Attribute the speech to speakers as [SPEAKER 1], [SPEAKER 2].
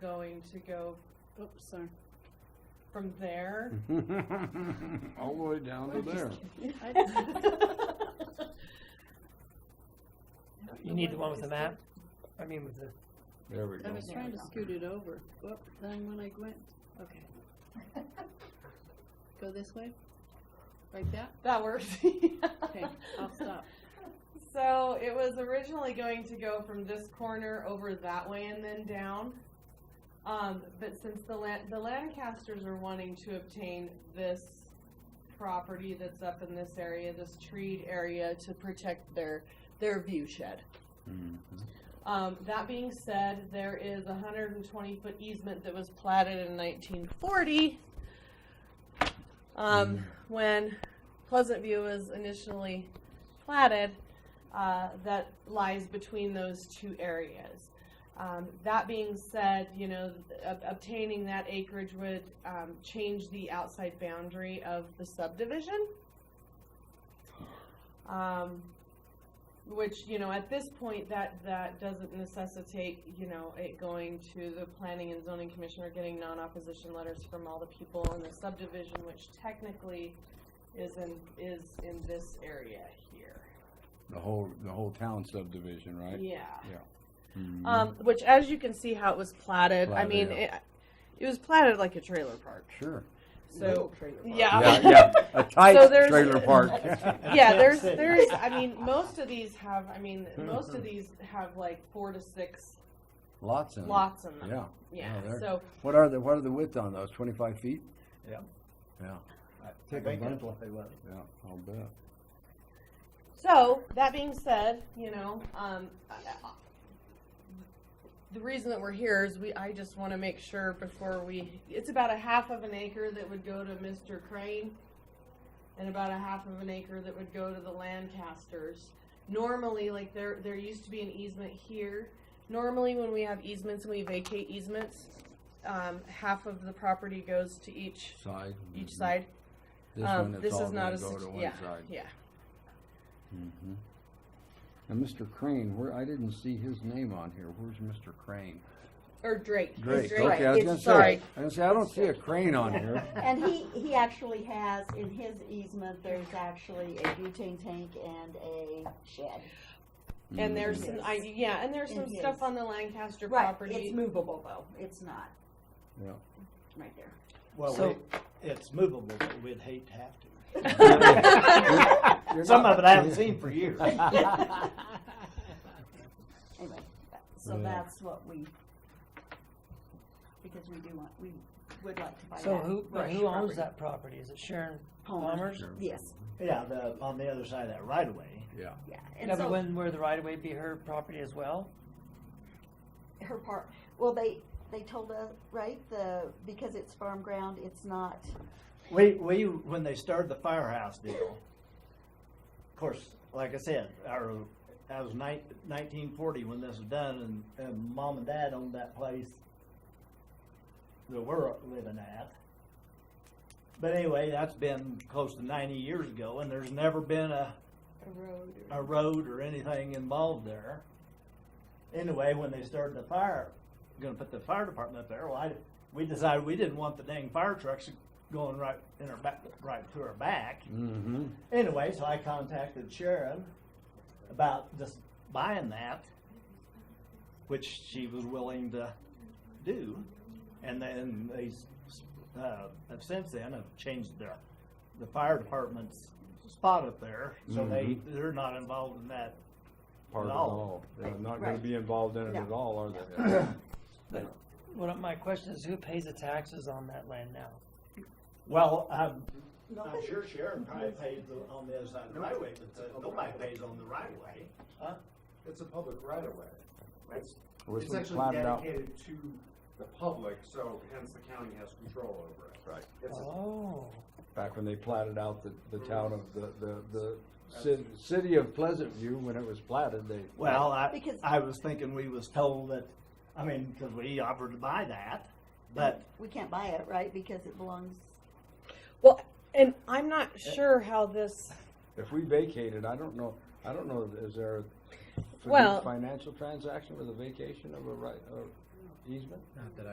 [SPEAKER 1] going to go, oops, sorry, from there.
[SPEAKER 2] All the way down to there.
[SPEAKER 1] Hmm.
[SPEAKER 3] You need the one with the map? I mean, with the,
[SPEAKER 2] There we
[SPEAKER 1] I
[SPEAKER 2] go.
[SPEAKER 1] was trying to scoot it over, but then when I went, okay. Go this way? Like that?
[SPEAKER 4] That works.
[SPEAKER 1] Okay, I'll stop.
[SPEAKER 4] So it was originally going to go from this corner over that way and then down. Um, but since the Lan- the Lancasters are wanting to obtain this property that's up in this area, this treed area to protect their, their view shed.
[SPEAKER 2] Mhm.
[SPEAKER 4] Um, that being said, there is a hundred and twenty foot easement that was platted in nineteen forty. Um, when Pleasant View was initially platted, uh, that lies between those two areas. Um, that being said, you know, th- ob- obtaining that acreage would, um, change the outside boundary of the subdivision. Um, which, you know, at this point, that, that doesn't necessitate, you know, it going to the planning and zoning commission or getting non-opposition letters from all the people in the subdivision, which technically is in, is in this area here.
[SPEAKER 2] The whole, the whole town subdivision, right?
[SPEAKER 4] Yeah.
[SPEAKER 2] Mhm.
[SPEAKER 4] Um, which as you can see how it was platted, I mean,
[SPEAKER 2] Platted,
[SPEAKER 4] it, it was platted like a trailer park,
[SPEAKER 2] Sure.
[SPEAKER 4] so.
[SPEAKER 2] Yeah, yeah, a
[SPEAKER 4] So
[SPEAKER 2] tight
[SPEAKER 4] there's-
[SPEAKER 2] trailer park.
[SPEAKER 4] yeah, there's there's I mean most of these have I mean most of these have like four to six
[SPEAKER 2] Lots in it.
[SPEAKER 4] lots in them.
[SPEAKER 2] Yeah.
[SPEAKER 4] Yeah.
[SPEAKER 2] Yeah, they're-
[SPEAKER 4] so
[SPEAKER 2] What are the, what are the width on those? Twenty-five feet?
[SPEAKER 5] Yeah.
[SPEAKER 2] Yeah,
[SPEAKER 5] Take
[SPEAKER 2] a bunch.
[SPEAKER 5] what?
[SPEAKER 2] yeah, I'll bet.
[SPEAKER 4] so that being said, you know, um, I- I- the reason that we're here is we I just want to make sure before we it's about a half of an acre that would go to Mr. Crane and about a half of an acre that would go to the Lancasters. Normally, like there there used to be an easement here. Normally, when we have easements and we vacate easements, um, half of the property goes to each
[SPEAKER 2] Side.
[SPEAKER 4] each
[SPEAKER 2] mhm.
[SPEAKER 4] side.
[SPEAKER 2] This
[SPEAKER 4] um,
[SPEAKER 2] one, it's
[SPEAKER 4] this
[SPEAKER 2] all
[SPEAKER 4] is not
[SPEAKER 2] gonna
[SPEAKER 4] a
[SPEAKER 2] go
[SPEAKER 4] sit-
[SPEAKER 2] to one
[SPEAKER 4] yeah,
[SPEAKER 2] side.
[SPEAKER 4] yeah.
[SPEAKER 2] Mhm. And Mr. Crane, where, I didn't see his name on here. Where's Mr. Crane?
[SPEAKER 4] Or Drake. It's
[SPEAKER 2] Drake,
[SPEAKER 4] Drake.
[SPEAKER 2] okay, I was
[SPEAKER 4] It's-
[SPEAKER 2] gonna say. I
[SPEAKER 4] Sorry.
[SPEAKER 2] was gonna say, I don't see a crane on here.
[SPEAKER 6] And he, he actually has, in his easement, there's actually a butane tank and a shed.
[SPEAKER 4] And there's,
[SPEAKER 2] Mhm.
[SPEAKER 4] some- I, yeah, and there's
[SPEAKER 6] In
[SPEAKER 4] some
[SPEAKER 6] his.
[SPEAKER 4] stuff on the Lancaster
[SPEAKER 6] Right,
[SPEAKER 4] property.
[SPEAKER 6] it's movable though, it's not,
[SPEAKER 2] Yeah.
[SPEAKER 6] right there.
[SPEAKER 5] Well,
[SPEAKER 3] So-
[SPEAKER 5] we- it's movable, but we'd hate to have to.
[SPEAKER 2] You're
[SPEAKER 5] Some
[SPEAKER 2] not-
[SPEAKER 5] of it I haven't seen for years.
[SPEAKER 6] Anyway, that- so
[SPEAKER 2] Yeah.
[SPEAKER 6] that's what we, because we do want, we would like to buy that.
[SPEAKER 3] so who, but
[SPEAKER 6] Rush
[SPEAKER 3] who owns
[SPEAKER 6] property.
[SPEAKER 3] that property? Is it Sharon
[SPEAKER 6] Palmer.
[SPEAKER 3] Palmer's?
[SPEAKER 6] Yes,
[SPEAKER 5] Yeah, the, on the other side of that right away.
[SPEAKER 2] Yeah.
[SPEAKER 6] yeah, and
[SPEAKER 3] Yeah, but
[SPEAKER 6] so
[SPEAKER 3] wouldn't where the right of way be her property as well?
[SPEAKER 6] her part, well, they, they told us, right, the, because it's farm ground, it's not,
[SPEAKER 5] We, we, when they started the firehouse deal, of course, like I said, our, that was nineteen forty when this was done, and, and mom and dad owned that place that we're living at. But anyway, that's been close to ninety years ago, and there's never been a,
[SPEAKER 6] a road or.
[SPEAKER 5] a road or anything involved there. Anyway, when they started the fire, gonna put the fire department up there, well, I, we decided we didn't want the dang fire trucks going right in our back, right to our back.
[SPEAKER 2] Mm-hmm.
[SPEAKER 5] Anyway, so I contacted Sharon about just buying that, which she was willing to do. And then they, s- s- uh, have since then have changed their, the fire department's spot up there. So they, they're not involved in that.
[SPEAKER 2] Mm-hmm. Part of it
[SPEAKER 5] At all.
[SPEAKER 2] all. They're not gonna
[SPEAKER 6] Right.
[SPEAKER 2] be involved in it
[SPEAKER 6] No.
[SPEAKER 2] at all, are they?
[SPEAKER 3] What, my question is, who pays the taxes on that land now?
[SPEAKER 5] Well, um, I'm,
[SPEAKER 6] Nobody-
[SPEAKER 5] sure Sharon probably pays on the other side of the highway, but uh, nobody pays on the right of way.
[SPEAKER 7] It's a public right of way. It's,
[SPEAKER 2] Was
[SPEAKER 7] it's
[SPEAKER 2] it
[SPEAKER 7] actually
[SPEAKER 2] plotted out?
[SPEAKER 7] dedicated to the public, so hence the county has control over it.
[SPEAKER 2] Right.
[SPEAKER 7] It's a-
[SPEAKER 3] Oh,
[SPEAKER 2] Back when they platted out the, the town of the, the, the ci- city of Pleasant View, when it was platted, they.
[SPEAKER 5] Well, I,
[SPEAKER 6] Because-
[SPEAKER 5] I was thinking we was told that, I mean, because we offered to buy that, but
[SPEAKER 6] We can't buy it, right, because it belongs,
[SPEAKER 4] Well, and I'm not sure how this,
[SPEAKER 2] If we vacated, I don't know, I don't know, is there a fin-
[SPEAKER 4] Well-
[SPEAKER 2] financial transaction with a vacation of a right, of easement?